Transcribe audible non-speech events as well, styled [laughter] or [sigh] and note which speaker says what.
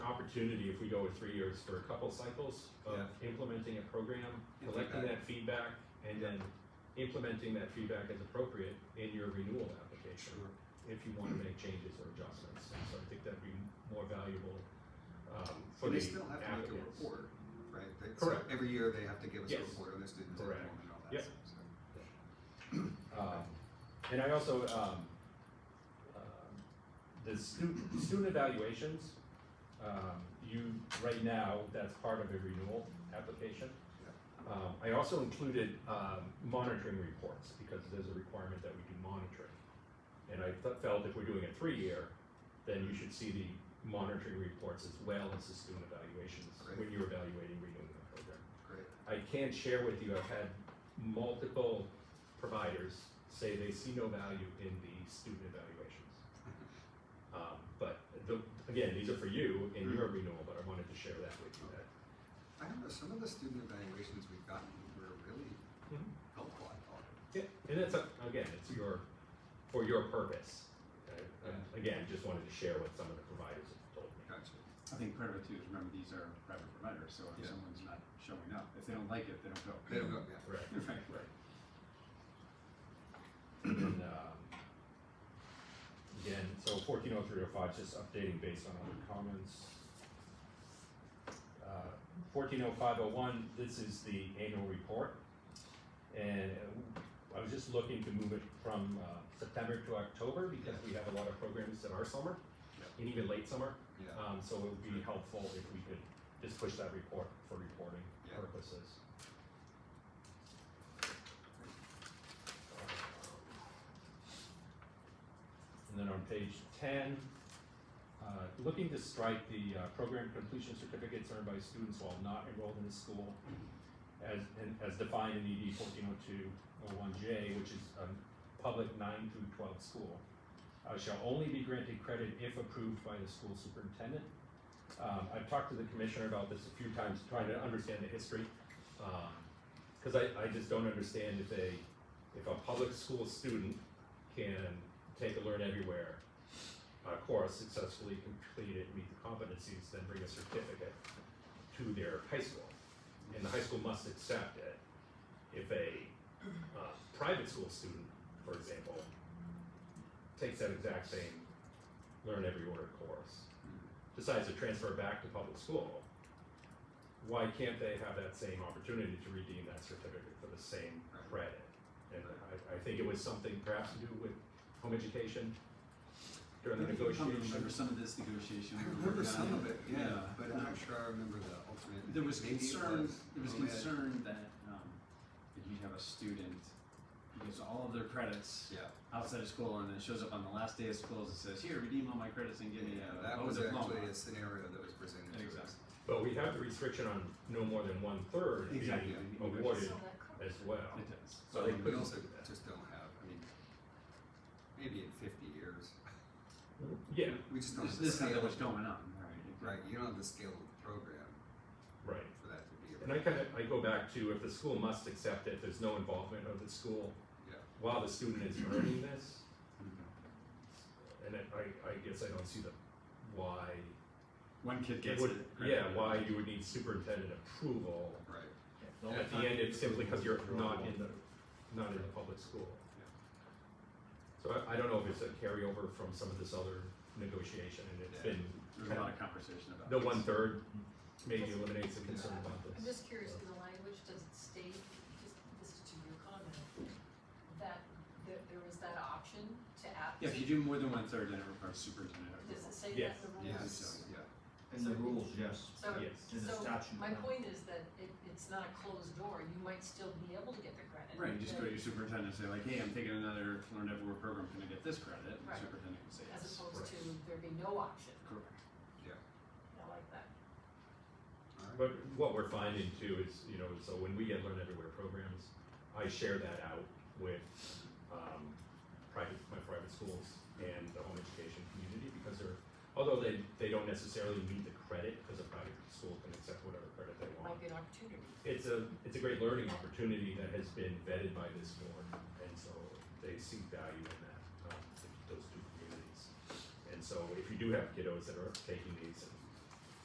Speaker 1: opportunity, if we go with three years, for a couple cycles of implementing a program,
Speaker 2: And
Speaker 1: collecting that feedback, and then implementing that feedback as appropriate in your renewal application, if you wanna make changes or adjustments, And so I think that'd be more valuable, um, for
Speaker 2: And
Speaker 1: the
Speaker 2: they still have to make a
Speaker 1: applicants.
Speaker 2: report, right? They- so
Speaker 1: Correct.
Speaker 2: Every year they have to give us a
Speaker 1: Yes.
Speaker 2: report on their students'
Speaker 1: Correct.
Speaker 2: enrollment and all that.
Speaker 1: Yep.
Speaker 2: stuff, so.
Speaker 1: Um, and I also, um, um, the student, student evaluations, um, you, right now, that's part of a renewal application. Um, I also included, um, monitoring reports, because there's a requirement that we do monitoring. And I fe- felt if we're doing a three-year, then you should see the monitoring reports as well as the student evaluations
Speaker 2: Great.
Speaker 1: when you're evaluating renewing the program.
Speaker 2: Great.
Speaker 1: I can share with you, I've had multiple providers say they see no value in the student evaluations. Um, but the, again, these are for you in your renewal, but I wanted to share that with you that.
Speaker 2: I don't know, some of the student evaluations we've gotten were really
Speaker 1: Mhm.
Speaker 2: helpful, I thought.
Speaker 1: Yeah, and it's, a- again, it's your, for your purpose. Uh, uh, Again, just wanted to share what some of the providers have told me.
Speaker 2: Gotcha.
Speaker 3: I think part of it too is remember these are private providers, so if
Speaker 2: Yeah.
Speaker 3: someone's not showing up, if they don't like it, they don't go.
Speaker 2: They don't go, yeah.
Speaker 1: Right.
Speaker 3: [laughs] Right.
Speaker 1: Right. And then, um, again, so fourteen oh three oh five, just updating based on other comments. Uh, Fourteen oh five oh one, this is the annual report. And uh, I was just looking to move it from uh, September to October because we have a lot of programs in our summer and even late summer.
Speaker 3: Uh,
Speaker 2: Yeah,
Speaker 1: Um, so it would be helpful if we could just push that report for reporting
Speaker 2: Yeah.
Speaker 1: purposes. And then on page ten, uh, looking to strike the, uh, program completion certificates earned by students while not enrolled in the school as, and as defined in ED fourteen oh two oh one J, which is a public nine through twelve school, uh, shall only be granted credit if approved by the school superintendent. Um, I've talked to the commissioner about this a few times, trying to understand the history, um, cause I, I just don't understand if a, if a public school student can take a learn everywhere uh, course, successfully complete it, meet the competencies, then bring a certificate to their high school. And the high school must accept it. If a, uh, private school student, for example, takes that exact same learn every order course, decides to transfer back to public school, why can't they have that same opportunity to redeem that certificate for the same credit? And I, I think it was something perhaps to do with home education during the
Speaker 3: I think you probably
Speaker 1: negotiation.
Speaker 3: Remember some of this negotiation.
Speaker 2: I
Speaker 3: we were
Speaker 2: remember
Speaker 3: working on
Speaker 2: some of it, yeah, but I'm
Speaker 3: Um,
Speaker 2: not sure I remember the alternate.
Speaker 3: There was
Speaker 2: Maybe it
Speaker 3: concern, there was
Speaker 2: oh, yeah.
Speaker 3: concern that, um, that you have a student who gets all of their credits
Speaker 2: Yeah,
Speaker 3: outside of school and then shows up on the last day of school and says, here, redeem all my credits and give me a,
Speaker 2: that
Speaker 3: oh,
Speaker 2: was
Speaker 3: diploma.
Speaker 2: actually a scenario that was presented to us.
Speaker 3: Exactly.
Speaker 1: But we have the restriction on no more than one third being
Speaker 3: Exactly.
Speaker 1: awarded
Speaker 4: So that covers-
Speaker 1: as well.
Speaker 3: It does.
Speaker 1: So they
Speaker 2: We
Speaker 1: couldn't
Speaker 2: also
Speaker 1: do that.
Speaker 2: just don't have, I mean, maybe in fifty years,
Speaker 1: Yeah,
Speaker 2: we just don't
Speaker 3: There's,
Speaker 2: have the
Speaker 3: there's not that
Speaker 2: scale,
Speaker 3: much going on, right?
Speaker 2: right, you don't have the scale of the program
Speaker 1: right.
Speaker 2: for that to be.
Speaker 1: And I kind of, I go back to if the school must accept it, there's no involvement of the school
Speaker 2: Yeah.
Speaker 1: while the student is earning this. And it- I, I guess I don't see the why.
Speaker 3: One kid gets
Speaker 1: would-
Speaker 3: it.
Speaker 1: Yeah, why you would need superintendent approval.
Speaker 2: Right,
Speaker 1: At the end, it's simply because you're not in the, not in the public school. So I, I don't know if it's a carryover from some of this other negotiation and it's
Speaker 2: Yeah.
Speaker 1: been
Speaker 3: There's a lot of conversation about
Speaker 1: The
Speaker 3: this.
Speaker 1: one third maybe eliminates the concern about
Speaker 4: I'm
Speaker 1: this.
Speaker 4: just curious, in the language, does it state, just, this is to your comment, that there, there is that option to add?
Speaker 3: Yeah, if you do more than one third, then it requires superintendent
Speaker 4: Does
Speaker 3: approval.
Speaker 4: it say that
Speaker 1: Yes.
Speaker 4: in the
Speaker 2: yeah,
Speaker 4: rules?
Speaker 2: so, yeah.
Speaker 5: In the rules, yes,
Speaker 4: So,
Speaker 1: Yes.
Speaker 5: in the
Speaker 4: so
Speaker 5: statute.
Speaker 4: my
Speaker 5: no.
Speaker 4: point is that it, it's not a closed door, you might still be able to get the credit.
Speaker 3: Right, you just go
Speaker 4: but-
Speaker 3: to your superintendent and say like, hey, I'm taking another Learn Everywhere program, can I get this credit? And the
Speaker 4: Right.
Speaker 3: superintendent can say
Speaker 4: As
Speaker 3: yes.
Speaker 4: opposed
Speaker 1: Right.
Speaker 4: to there be no option,
Speaker 3: Correct.
Speaker 4: I like that.
Speaker 1: But what we're finding too is, you know, so when we get Learn Everywhere programs, I share that out with, um, private, my private schools and the home education community because they're, although they, they don't necessarily need the credit because a private school can accept whatever credit they want.
Speaker 4: Might be an opportunity.
Speaker 1: It's a, it's a great learning opportunity that has been vetted by this board, and so they see value in that, um, those two communities. And so if you do have kiddos that are taking these and